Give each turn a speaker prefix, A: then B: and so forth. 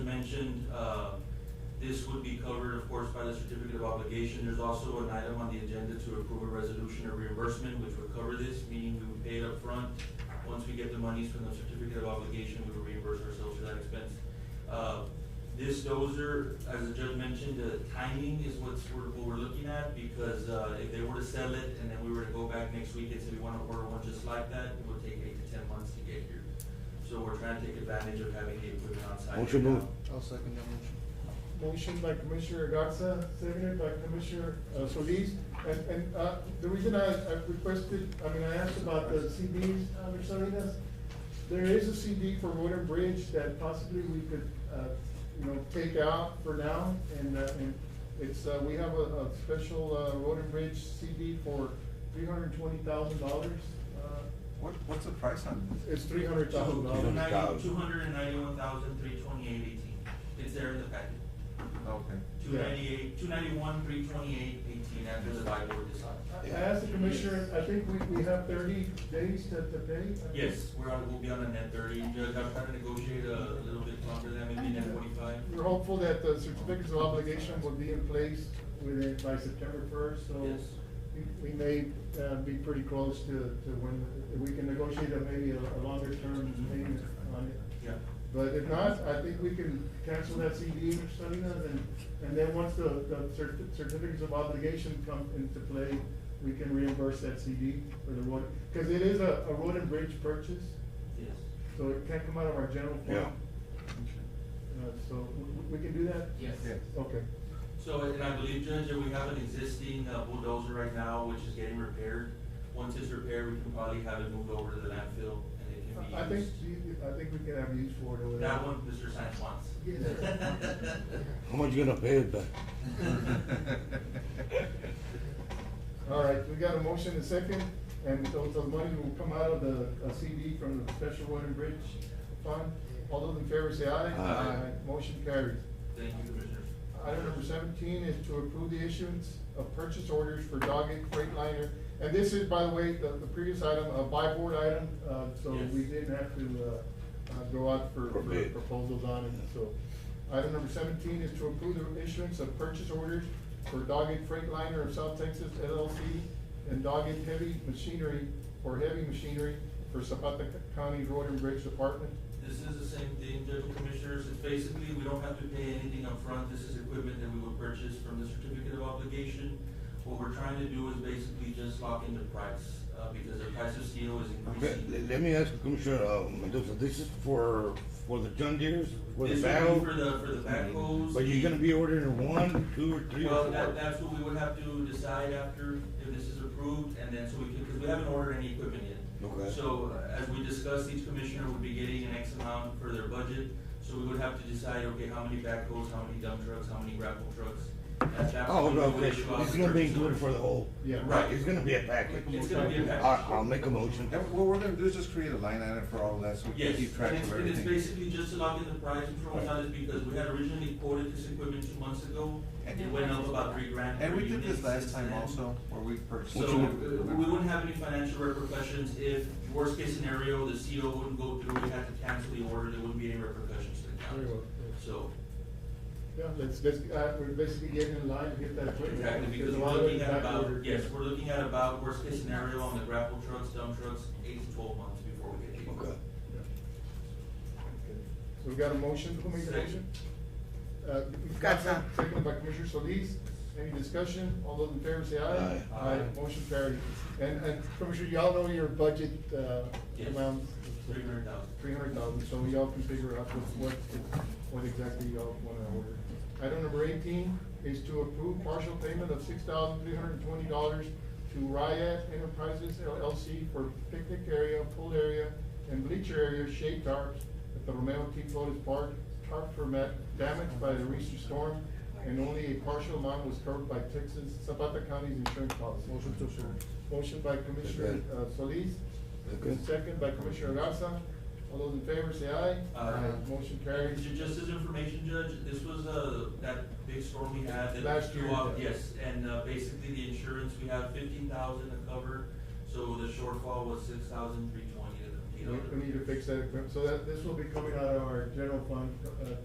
A: mentioned, uh, this would be covered, of course, by the certificate of obligation. There's also an item on the agenda to approve a resolution of reimbursement, which would cover this, meaning we would pay it upfront. Once we get the monies from the certificate of obligation, we would reimburse ourselves for that expense. Uh, This dozer, as the judge mentioned, the timing is what's, we're- what we're looking at, because uh, if they were to sell it and then we were to go back next week and say we want to order one just like that, it would take eight to ten months to get here. So we're trying to take advantage of having the equipment on site.
B: Motion
A: right
B: move.
A: now.
C: I'll second that motion.
D: Motion by Commissioner Garza, seconded by Commissioner uh, Solis. And, and, uh, the reason I, I requested, I mean, I asked about the CDs, uh, Ms. Salinas. There is a CD for Road and Bridge that possibly we could, uh, you know, take out for now. And, uh, and it's, uh, we have a, a special, uh, Road and Bridge CD for three hundred and twenty thousand dollars. Uh,
E: What, what's the price on this?
D: It's three hundred
A: Two
D: thousand dollars.
A: ninety, two hundred and ninety-one thousand, three twenty-eight, eighteen. It's there in the packet.
E: Oh, Okay.
A: Two
D: Yeah.
A: ninety-eight, two ninety-one, three twenty-eight, eighteen, after the buy board decides.
D: I I asked the commissioner, I think we, we have thirty days to, to pay. I think.
A: Yes, we're on, we'll be on a net thirty. Judge, I'm trying to negotiate a little bit longer than maybe net forty-five.
D: We're hopeful that the certificates of obligation will be in place within, by September first, so
A: Yes.
D: we- we may, uh, be pretty close to, to when, we can negotiate a, maybe a, a longer term payment on it.
A: Yeah.
D: But if not, I think we can cancel that CD, Mr. Salinas, and, and then once the, the certi- certificates of obligation come into play, we can reimburse that CD for the road, because it is a, a road and bridge purchase,
A: Yes.
D: so it can't come out of our general fund.
B: Yeah.
D: Uh, so, we- we, we can do that?
A: Yes.
E: Yes.
D: Okay.
A: So, and I believe, Judge, that we have an existing uh, bulldozer right now, which is getting repaired. Once it's repaired, we can probably have it moved over to the landfill and it can be used.
D: I think, you- I think we can have use for it over there.
A: That one, Mr. Sines wants.
B: How much you gonna pay it back?
D: All right, we got a motion and second, and so, so the money will come out of the, uh CD from the Special Road and Bridge Fund. All those in favor say aye.
B: Aye.
D: Motion carries.
A: Thank you, Commissioners.
D: Item number seventeen is to approve the issuance of purchase orders for Doggett Freightliner. And this is, by the way, the, the previous item, a buy board item, uh, so
A: Yes.
D: we didn't have to, uh, uh, go out for, for
B: For bid.
D: proposals on it, so. Item number seventeen is to approve the issuance of purchase orders for Doggett Freightliner of South Texas LLC and Doggett Heavy Machinery for Heavy Machinery for Zapata County Road and Bridge Department.
A: This is the same thing, Judge and Commissioners, it's basically, we don't have to pay anything upfront, this is equipment that we will purchase from the certificate of obligation. What we're trying to do is basically just lock in the price, uh, because the price of steel is
B: Okay, le-
A: increasing.
B: let me ask you, Commissioner, uh, Mendoza, this is for, for the John Deere's, for the
A: This would be
B: battle?
A: For the, for the backhoes.
B: But you're gonna be ordering one, two, or three, or
A: Well, that,
B: four?
A: that's what we would have to decide after, if this is approved, and then so we can, because we haven't ordered any equipment yet.
B: Okay.
A: So, uh, as we discussed, each commissioner would be getting an X amount for their budget, so we would have to decide, okay, how many backhoes, how many dump trucks, how many grapple trucks. At that
B: Oh,
A: point, we would
B: okay,
A: issue out
B: it's
A: the
B: gonna be
A: purchase
B: included
A: orders.
B: for the whole?
D: Yeah.
B: Right, it's gonna be a package.
A: It's gonna be a package.
B: I, I'll make a motion.
E: And what we're gonna do is just create a line item for all of that, so we
A: Yes,
E: can keep track
A: and it's-
E: of
A: and it's
E: everything.
A: basically just to lock in the price for
B: Right.
A: Gonzalez, because we had originally quoted this equipment two months ago,
E: And-
A: it went up about three grand.
E: And
A: per
E: we did
A: unit
E: this last
A: since
E: time
A: then.
E: also, where we purchased.
A: So, uh, we wouldn't have any financial repercussions if, worst case scenario, the CO wouldn't go through, we had to cancel the order, there wouldn't be any repercussions to the county.
D: Very well.
A: So,
D: Yeah, let's, let's, uh, we're basically getting in line to get that equipment.
A: exactly, because
D: a
A: we're
D: lot of
A: looking
D: it's
A: at
D: back
A: about,
D: ordered.
A: yes, we're looking at about, worst case scenario, on the grapple trucks, dump trucks, eight to twelve months before we get it.
B: Okay.
D: Yeah. Okay. So we got a motion, who made the motion? Uh,
F: Garza.
D: Second by Commissioner Solis, any discussion, all those in favor say aye.
B: Aye.
D: motion carried. And, and Commissioner, y'all know your budget, uh,
A: Yes.
D: amount?
A: Three hundred thousand.
D: Three hundred thousand, so y'all can figure out what, what, what exactly y'all wanna order. Item number eighteen is to approve partial payment of six thousand three hundred and twenty dollars to Riot Enterprises LLC for picnic area, pool area, and bleacher area shade tarps at the Romeo T. Flores Park. Tarps were ma- damaged by the recent storm, and only a partial amount was covered by Texas Zapata County's insurance policy. Motion to approve. Motion by Commissioner uh, Solis,
B: Okay.
D: second by Commissioner Garza. All those in favor say aye.
A: Aye.
D: Motion carries.
A: Ju- Just as information, Judge, this was, uh, that big storm we had that.
D: Last
A: threw
D: year,
A: off-
D: yeah.
A: Yes, and, uh, basically the insurance, we have fifteen thousand to cover, so the shortfall was six thousand three twenty to complete.
D: We
A: all the-
D: we need to fix that, equip- so that, this will be coming out of our general fund, uh,